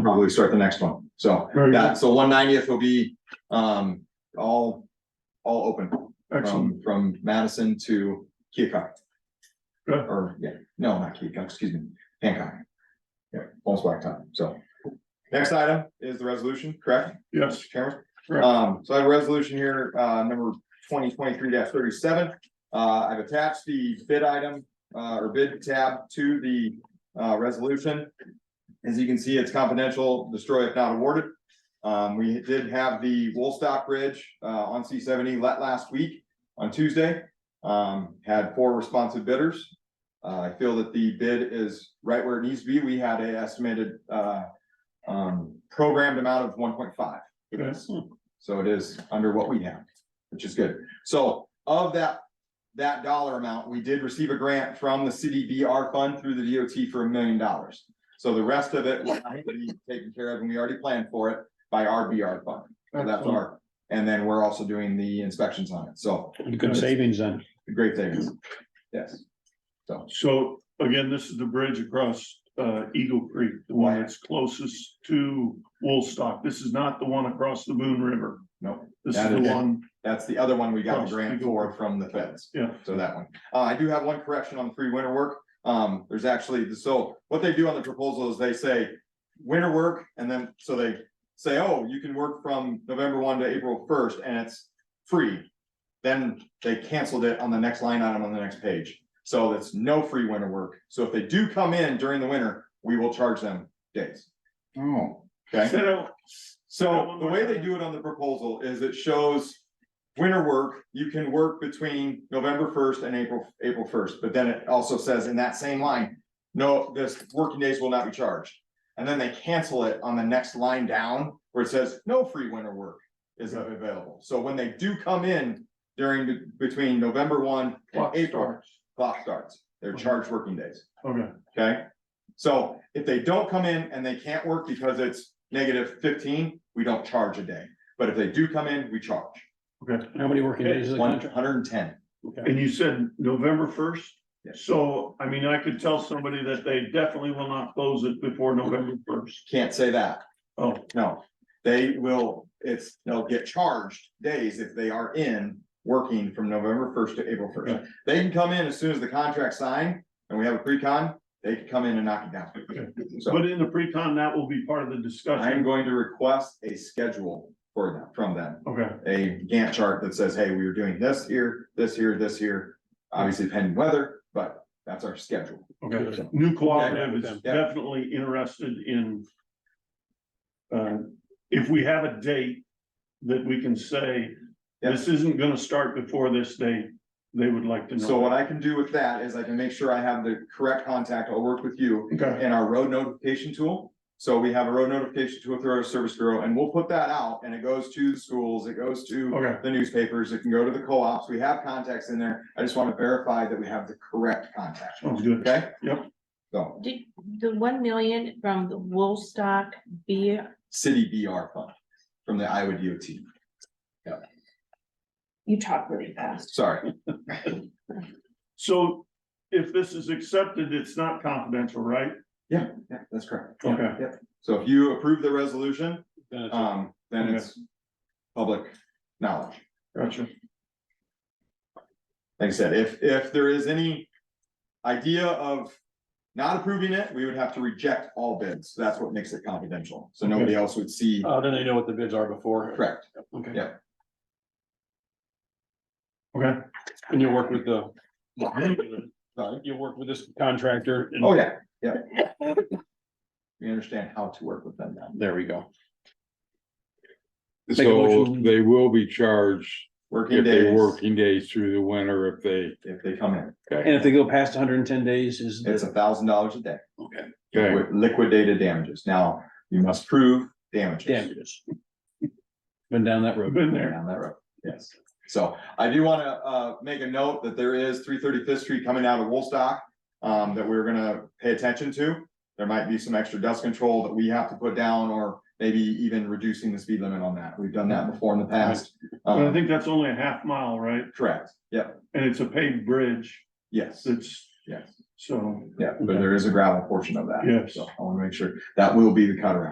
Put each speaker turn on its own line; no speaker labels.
probably start the next one. So,
Very
yeah,
good.
so one ninetieth will be, um, all, all open from,
Excellent.
from Madison to Keokuk.
Good.
Or, yeah, no, not Keokuk, excuse me, Hancock. Yeah, almost blacktop, so. Next item is the resolution, correct?
Yes,
Mr. Chairman?
Correct.
Um, so I have a resolution here, uh, number twenty twenty-three thirty-seven. Uh, I've attached the bid item, uh, or bid tab to the, uh, resolution. As you can see, it's confidential, destroy if not awarded. Um, we did have the Woolstock Bridge, uh, on C seventy let last week on Tuesday. Um, had four responsive bidders. Uh, I feel that the bid is right where it needs to be. We had a estimated, uh, um, programmed amount of one point five.
yes,
So it is under what we have, which is good. So of that, that dollar amount, we did receive a grant from the city VR fund through the DOT for a million dollars. So the rest of it will have to be taken care of and we already planned for it by our VR fund. So that's
Excellent.
our, and then we're also doing the inspections on it. So
Good savings then.
great savings. Yes.
So again, this is the bridge across uh Eagle Creek, the one that's closest to Woolstock. This is not the one across the Boone River.
No,
This is
That
the
is-
one,
that's the other one we got the grant for from the feds.
yeah.
So that one. Uh, I do have one correction on the free winter work. Um, there's actually, so what they do on the proposal is they say winter work and then, so they say, oh, you can work from November one to April first and it's free. Then they canceled it on the next line item on the next page. So it's no free winter work. So if they do come in during the winter, we will charge them days.
Oh.
Okay?
So That
So
one
the
more
way they
time.
do it on the proposal is it shows. Winter work, you can work between November first and April, April first, but then it also says in that same line. No, this working days will not be charged. And then they cancel it on the next line down where it says no free winter work is available. So when they do come in during be- between November one and
clock
April,
starts.
clock starts. They're
Mhm.
charged working days.
Okay,
Okay, so if they don't come in and they can't work because it's negative fifteen, we don't charge a day. But if they do come in, we charge
okay.
How many working days is the
one
contract?
hundred and ten.
And you said November first?
Yes.
So, I mean, I could tell somebody that they definitely will not close it before November first.
Can't say that,
Oh,
no. They will, it's, they'll get charged days if they are in working from November first to April
Okay.
first. They can come in as soon as the contract's signed and we have a pre-con, they can come in and knock it down. So
but in the pre-con, that will be part of the
I'm
discussion.
going to request a schedule for them, from them.
Okay,
a Gantt chart that says, hey, we were doing this here, this here, this here. Obviously pending weather, but that's our schedule.
okay. New cooperative
Yeah,
is
yeah.
definitely interested in uh, if we have a date that we can say,
Yeah.
this isn't gonna start before this date, they would like to know.
So uh, what I can do with that is I can make sure I have the correct contact. I'll work with you
Okay,
in our road notification tool. So we have a road notification tool through our service bureau and we'll put that out and it goes to the schools, it goes to
okay.
the newspapers, it can go to the co-ops. We have contacts in there. I just want to verify that we have the correct contact,
Sounds good.
okay?
Yep.
So,
Did the one million from the Woolstock be,
city BR fund from the Iowa DOT.
you talk really fast.
Sorry,
So if this is accepted, it's not confidential, right?
Yeah, that's correct.
Okay,
So if you approve the resolution,
Then it's-
um, then it's public knowledge.
gotcha.
Like I said, if, if there is any idea of not approving it, we would have to reject all bids. That's what makes it confidential. So nobody else would see,
Uh, then they know what the bids are before.
correct?
Okay.
Yeah.
Okay,
And you'll work with the,
Sorry.
you'll work with this contractor. and-
Oh, yeah, yeah. We understand how to work with them now.
There we go. Make a
So
motion.
they will be charged
Working
if they
days,
working days through the winter if they,
if they come in,
And if they go past hundred and ten days is. the-
it's a thousand dollars a day
Okay.
okay,
with liquidated damages. Now, you must prove damages.
Damages. Been down that road.
been there.
down that road, yes. So I do want to uh make a note that there is three thirty Fifth Street coming out of Woolstock. Um, that we're gonna pay attention to. There might be some extra dust control that we have to put down or maybe even reducing the speed limit on that. We've done that before in the past.
But I
Um,
think that's only a half mile, right?
correct, yep,
And it's a paved bridge.
yes,
It's,
yes,
so,
yeah, but there is a gravel portion of that.
Yes.
So I want to make sure that will be the cut around.